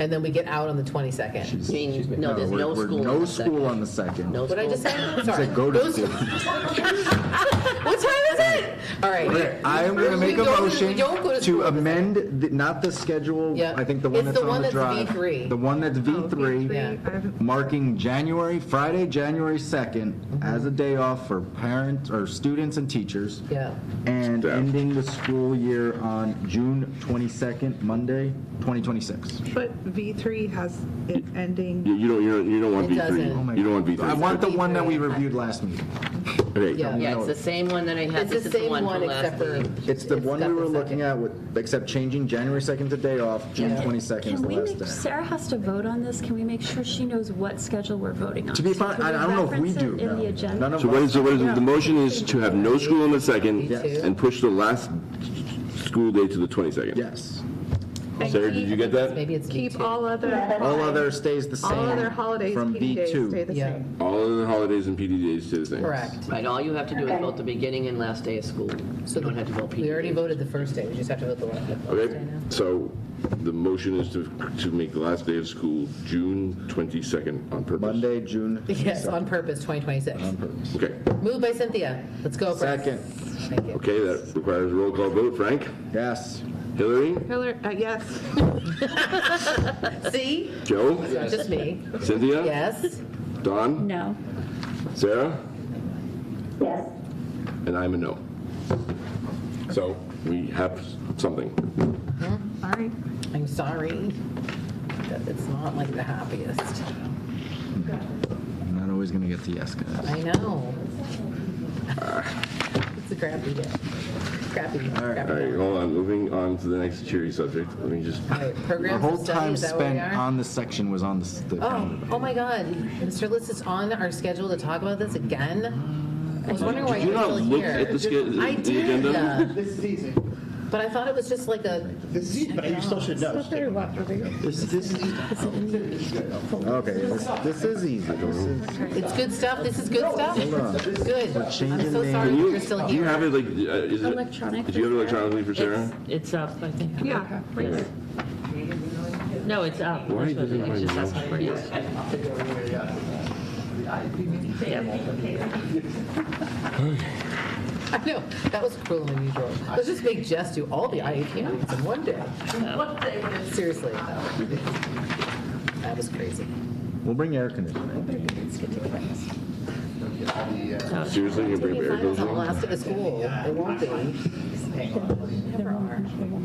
and then we get out on the 22nd. She's- I mean, she's- no, there's we're- no we're school on No the school on the second. No What did I just say? Sorry. Said go to Those- school. What time is it? All right. Okay, I am going to We make a don't- we motion don't go to to school. amend, the- not the schedule, Yeah. I think the It's one that's the one on the that's drive. V3. The one that's Yeah. V3, marking January, Friday, January Mm-hmm. 2nd as a day off for parents, or students and teachers. Yeah. And Staff. ending the school year on June 22nd, Monday, 2026. But V3 has it ending, You you don't, you don't, you don't want It Oh my V3. You don't want God. I want V3. the one that we reviewed last meeting. Okay, Yeah. Yeah, it's the same one that I It's had. the This is same from one last except for. meeting. It's the one got we were the looking second. at with, except changing January 2nd to day off, June Yeah. 22nd is Can the we last make, day. Sarah has to vote on this, can we make sure she knows what schedule we're voting on? To be fine, Can I I don't know if we reference do. it In no. the None agenda? of so what us- is, so what is, the motion is to have no school on the second Yes. and push the last school day to the 22nd. Yes. Sarah, did you get that? Maybe it's keep B2. all other, All other stays the same. all other holidays, From PD days stay B2. the Yeah, same. All of the holidays and PD days stay the same. correct. Right, all you have to do is vote the beginning and last day of school. So You don't have to vote PD. We already voted the first day, we just have to vote the last. the last Okay, day now. so the motion is to, to make the last day of school June 22nd on purpose. Monday, June. Yes, on purpose, 2026. Okay, Moved by Cynthia, let's go. Brett. Um, Second. Thank you. okay, that requires a roll call vote. Frank? Yes. Hillary? Hillary, uh, yes. See, Joe? It's just me, Cynthia? yes. Don? No. Sarah? Yes. And I'm a no. So we have something. All right. I'm sorry that it's not like the happiest. I'm not always going to get the yes, guys. I know. It's a crappy day. Crappy, All crappy. right, hold on, moving on to the next cheery subject. Let me just, All right, The Programs whole of study, time is that where we spent are? on this section was on this- the Oh, calendar. oh my God, Mr. List is on our schedule to talk about this again? I was wondering why Did you you're not still look here. at the sch- I the did, agenda? This is easy. But I thought it was just like a, This is easy, but you still should know. This this is, okay, this this is easy. This is- it's good stuff, this is good stuff. on. Good. I'm changing so names. sorry that do you, you're still do you have here. it like, uh, is Electronic it, do you have it for Sarah? electronically for Sarah? It's- It's up, I think. Yeah. Right. No, it's up. Why That's what doesn't it my just mouse asked for. Yes. I know, that was cruel and unusual. Let's just make Jess do all the IEP meetings in one day. Seriously, though. That was crazy. We'll bring air conditioning. Seriously, you bring air Finals goes on the on? last day of school, it won't be.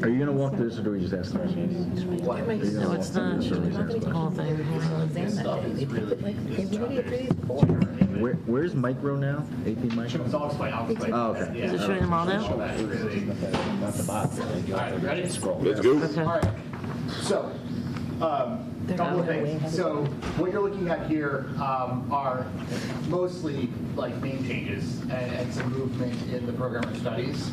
Are you going to walk this, or do we just ask questions? No, it's not. The whole thing. Where- Where's micro now? AP micro? I'll explain, I'll explain. Oh, okay. Is it showing them all now? Let's go. Okay. So, um, couple of things. So what you're looking at here um, are mostly like name changes and and some movement in the program of studies.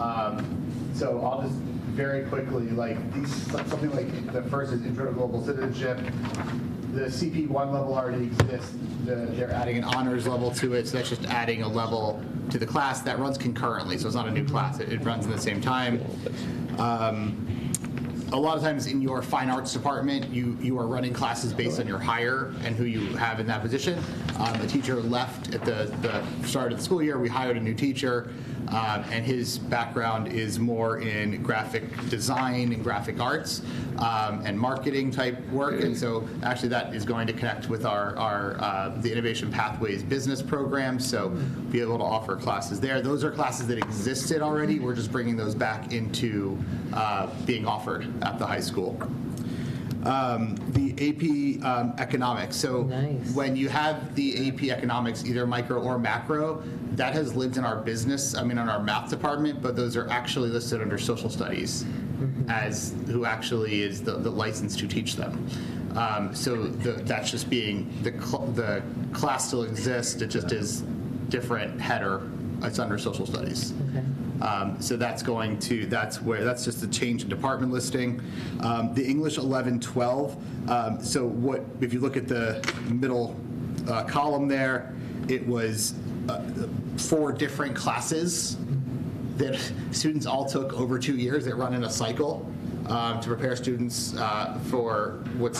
Um, So I'll just very quickly, like these, something like the first is intro to global citizenship. The CP1 level already exists. The- They're adding an honors level to it, so that's just adding a level to the class that runs concurrently. So it's not a new class. It it runs at the same time. Um, a lot of times in your fine arts department, you, you are running classes based on your hire and who you have in that position. Um, a teacher left at the, the start of the school year. We hired a new teacher, um, and his background is more in graphic design and graphic arts um, and marketing type work. And so, actually, that is going to connect with our, our uh, the Innovation Pathways business program. So, be able to offer classes there. Those are classes that existed already. We're just bringing those back into uh, being offered at the high school. Um, the AP um, economics. So Nice. when you have the AP economics, either micro or macro, that has lived in our business. I mean, on our math department, but those are actually listed under social studies as who actually is the, the license to teach them. Um, so the, that's just being the cl- the class still exists. It just is different header. It's under social studies. Um, So that's going to, that's where, that's just a change in department listing. Um, The English 11, 12, um, so what, if you look at the middle uh, column there, it was uh, four different classes that students all took over two years. They run in a cycle. um, to prepare students uh, for what's